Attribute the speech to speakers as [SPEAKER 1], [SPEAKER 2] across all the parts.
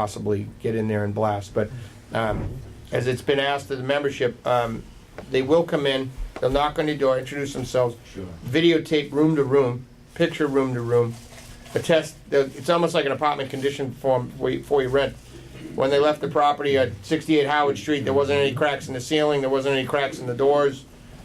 [SPEAKER 1] possibly get in there and blast. But um, as it's been asked of the membership, um, they will come in, they'll knock on your door, introduce themselves,
[SPEAKER 2] Sure.
[SPEAKER 1] videotape room to room, picture room to room, attest, it's almost like an apartment condition form for you- for you rent. When they left the property at 68 Howard Street, there wasn't any cracks in the ceiling, there wasn't any cracks in the doors,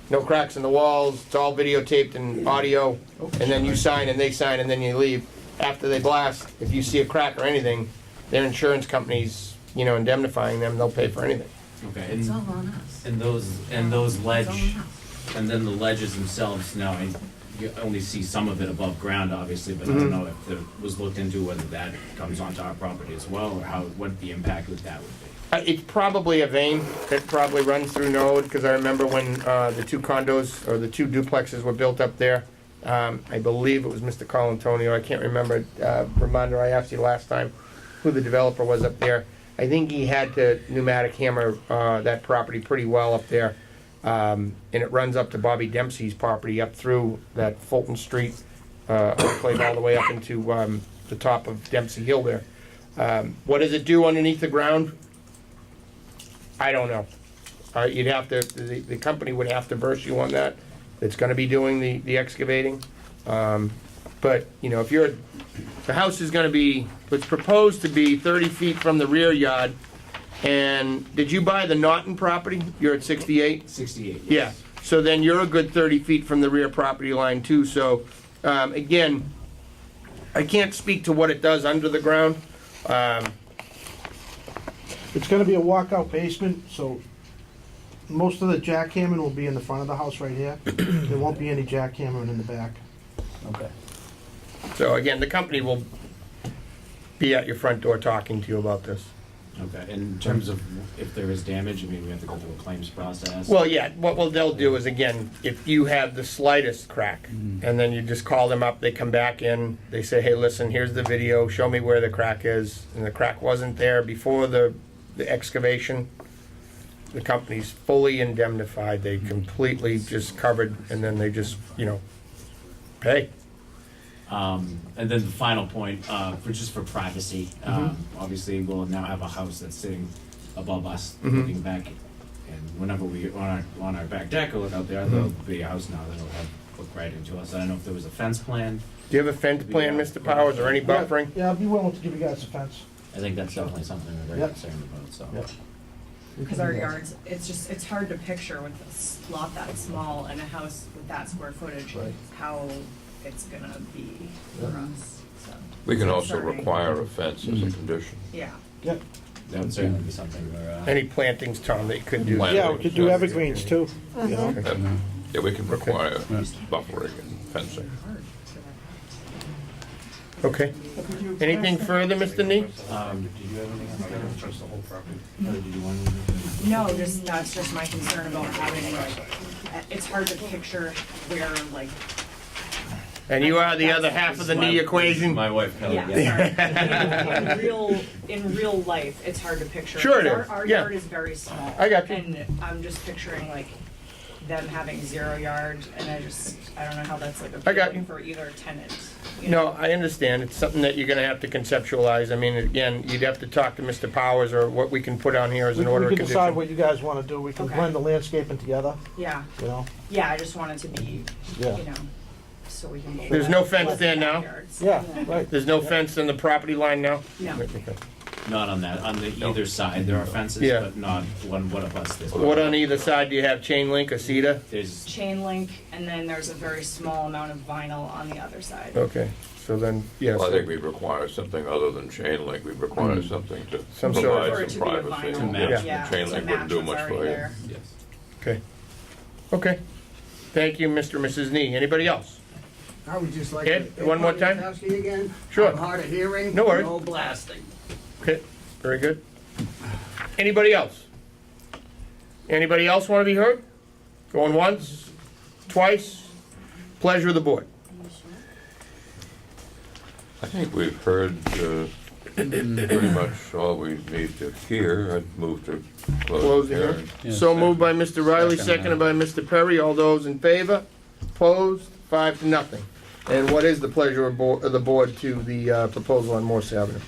[SPEAKER 1] no cracks in the walls, it's all videotaped and audio, and then you sign and they sign and then you leave. After they blast, if you see a crack or anything, their insurance company's, you know, indemnifying them, they'll pay for anything.
[SPEAKER 2] Okay,
[SPEAKER 3] It's all
[SPEAKER 2] and,
[SPEAKER 3] on us.
[SPEAKER 2] and those, and those Mm. ledge, and then the ledges themselves, now, I, you only see some of it above ground, obviously, but I don't know if there was looked into whether that comes onto our property as well, or how, what the impact with that would be.
[SPEAKER 1] Uh, It's probably a vein that probably runs through Norwood, because I remember when uh, the two condos, or the two duplexes were built up there. um, I believe it was Mr. Colantonio, I can't remember, uh, reminder, I asked you last time who the developer was up there. I think he had to pneumatic hammer uh, that property pretty well up there. Um, And it runs up to Bobby Dempsey's property, up through that Fulton Street, uh, played all the way up into um, the top of Dempsey Hill there. Um, What does it do underneath the ground? I don't know. Uh, you'd have to, the, the company would have to verse you on that, that's gonna be doing the, the excavating. Um, but, you know, if you're, the house is gonna be, it's proposed to be thirty feet from the rear yard. And did you buy the Norton property? You're at sixty-eight?
[SPEAKER 2] Sixty-eight,
[SPEAKER 1] Yeah,
[SPEAKER 2] yes.
[SPEAKER 1] so then you're a good 30 feet from the rear property line too, so, um, again, I can't speak to what it does under the ground. Um,
[SPEAKER 4] It's gonna be a walkout basement, so most of the jackhammering will be in the front of the house right here. There won't be any jackhammering in the back.
[SPEAKER 5] Okay.
[SPEAKER 1] so again, the company will be at your front door talking to you about this.
[SPEAKER 2] Okay, in terms of if there is damage, I mean, we have to go through a claims process.
[SPEAKER 1] Well, yeah, what, well, they'll do is, again, if you have the slightest crack, and then you just call them up, they come back in, they say, hey, listen, here's the video, show me where the crack is, and the crack wasn't there before the, the excavation. The company's fully indemnified, they completely just covered, and then they just, you know, pay.
[SPEAKER 2] Um, and then the final point, uh, for just for privacy, um, obviously we'll now have a house that's sitting above us, looking back. And whenever we, on our, on our back deck, or look out there, there'll be a house now that'll have, look right into us. I don't know if there was a fence plan.
[SPEAKER 1] Do you have a fence plan, Mr. Powers, or any buffering?
[SPEAKER 4] Yeah, I'd be willing to give you guys a fence.
[SPEAKER 2] I think that's definitely something we're very
[SPEAKER 4] Yep.
[SPEAKER 2] concerned about, so.
[SPEAKER 4] Yep.
[SPEAKER 3] Because our yards, it's just, it's hard to picture with a s- lot that small and a house with that square footage,
[SPEAKER 4] Right.
[SPEAKER 3] how it's gonna be for us, so,
[SPEAKER 6] We can also
[SPEAKER 3] Sorry.
[SPEAKER 6] require a fence as a
[SPEAKER 1] Mm.
[SPEAKER 6] condition.
[SPEAKER 3] yeah.
[SPEAKER 4] Yep.
[SPEAKER 2] That would certainly be something we're, uh,
[SPEAKER 1] Any plantings, Tom, that you could do?
[SPEAKER 6] Plant-
[SPEAKER 4] Yeah, we could do evergreens too. you know?
[SPEAKER 1] uh,
[SPEAKER 6] And, Yeah, we can require buffering and fencing.
[SPEAKER 3] Hard for that.
[SPEAKER 1] Okay. Anything further, Mr. Nee?
[SPEAKER 2] um, did you have anything else? Trust the whole property. Or did you want to?
[SPEAKER 3] No, just, that's just my concern about having like, uh, it's hard to picture where like,
[SPEAKER 1] And you are the other half of the knee equation?
[SPEAKER 2] My wife, Kelly,
[SPEAKER 3] yeah,
[SPEAKER 2] Oh, yeah.
[SPEAKER 3] sorry. In- In real, in real life, it's hard to picture.
[SPEAKER 1] Sure it
[SPEAKER 3] 'cause our-
[SPEAKER 1] is,
[SPEAKER 3] Our
[SPEAKER 1] yeah.
[SPEAKER 3] yard is very small.
[SPEAKER 1] I got you.
[SPEAKER 3] And I'm just picturing like them having zero yard and I just, I don't know how that's like
[SPEAKER 1] I got
[SPEAKER 3] appealing
[SPEAKER 1] you.
[SPEAKER 3] for either tenant. you know?
[SPEAKER 1] No, I understand. It's something that you're gonna have to conceptualize. I mean, again, you'd have to talk to Mr. Powers or what we can put on here as
[SPEAKER 4] We
[SPEAKER 1] an order
[SPEAKER 4] we
[SPEAKER 1] of
[SPEAKER 4] can decide
[SPEAKER 1] condition.
[SPEAKER 4] what you guys wanna do. We can
[SPEAKER 3] Okay.
[SPEAKER 4] blend the landscaping together,
[SPEAKER 3] Yeah,
[SPEAKER 4] you know?
[SPEAKER 3] yeah, I just wanted to be, you
[SPEAKER 4] Yeah.
[SPEAKER 3] know, so we can.
[SPEAKER 1] There's no fence there now?
[SPEAKER 3] Backyards.
[SPEAKER 4] Yeah, right.
[SPEAKER 1] There's no fence in the property line now?
[SPEAKER 3] No.
[SPEAKER 1] Okay.
[SPEAKER 2] Not on that, on the either side, there are fences,
[SPEAKER 1] Yeah.
[SPEAKER 2] but not one, what of us this.
[SPEAKER 1] What on either side? Do you have chain link or cedar?
[SPEAKER 2] There's,
[SPEAKER 3] Chain link and then there's a very small amount of vinyl on the other side.
[SPEAKER 4] Oh.
[SPEAKER 1] Okay, so then, yes.
[SPEAKER 6] Well, I think we require something other than chain link, we require something to
[SPEAKER 1] Mm. Some sort of-
[SPEAKER 3] For it
[SPEAKER 6] provide
[SPEAKER 3] to be a
[SPEAKER 6] some privacy.
[SPEAKER 3] vinyl.
[SPEAKER 2] Yeah.
[SPEAKER 6] Yes,
[SPEAKER 3] Yeah,
[SPEAKER 6] the Chain
[SPEAKER 3] to
[SPEAKER 6] link wouldn't
[SPEAKER 3] match
[SPEAKER 6] do
[SPEAKER 3] what's
[SPEAKER 6] much
[SPEAKER 3] already
[SPEAKER 6] for you.
[SPEAKER 3] there.
[SPEAKER 2] yes.
[SPEAKER 1] Okay. Okay. Thank you, Mr. and Mrs. Nee. Anybody else?
[SPEAKER 7] I would just like
[SPEAKER 1] Ed,
[SPEAKER 7] to.
[SPEAKER 1] one more time?
[SPEAKER 7] Ask you again.
[SPEAKER 1] Sure.
[SPEAKER 7] I'm hard of hearing.
[SPEAKER 1] No worries.
[SPEAKER 7] No blasting.
[SPEAKER 1] Okay, very good. Anybody else? Anybody else want to be heard? Going once, twice? Pleasure of the board.
[SPEAKER 6] I think we've heard uh, pretty much all we need to hear. I'd move to
[SPEAKER 1] Close
[SPEAKER 6] close
[SPEAKER 1] the
[SPEAKER 6] the
[SPEAKER 1] hearing.
[SPEAKER 6] hearing.
[SPEAKER 1] So moved by Mr. Riley, seconded by Mr. Perry. All those in favor? Opposed? Five to nothing. And what is the pleasure of bo- of the board to the uh, proposal on Morse Avenue?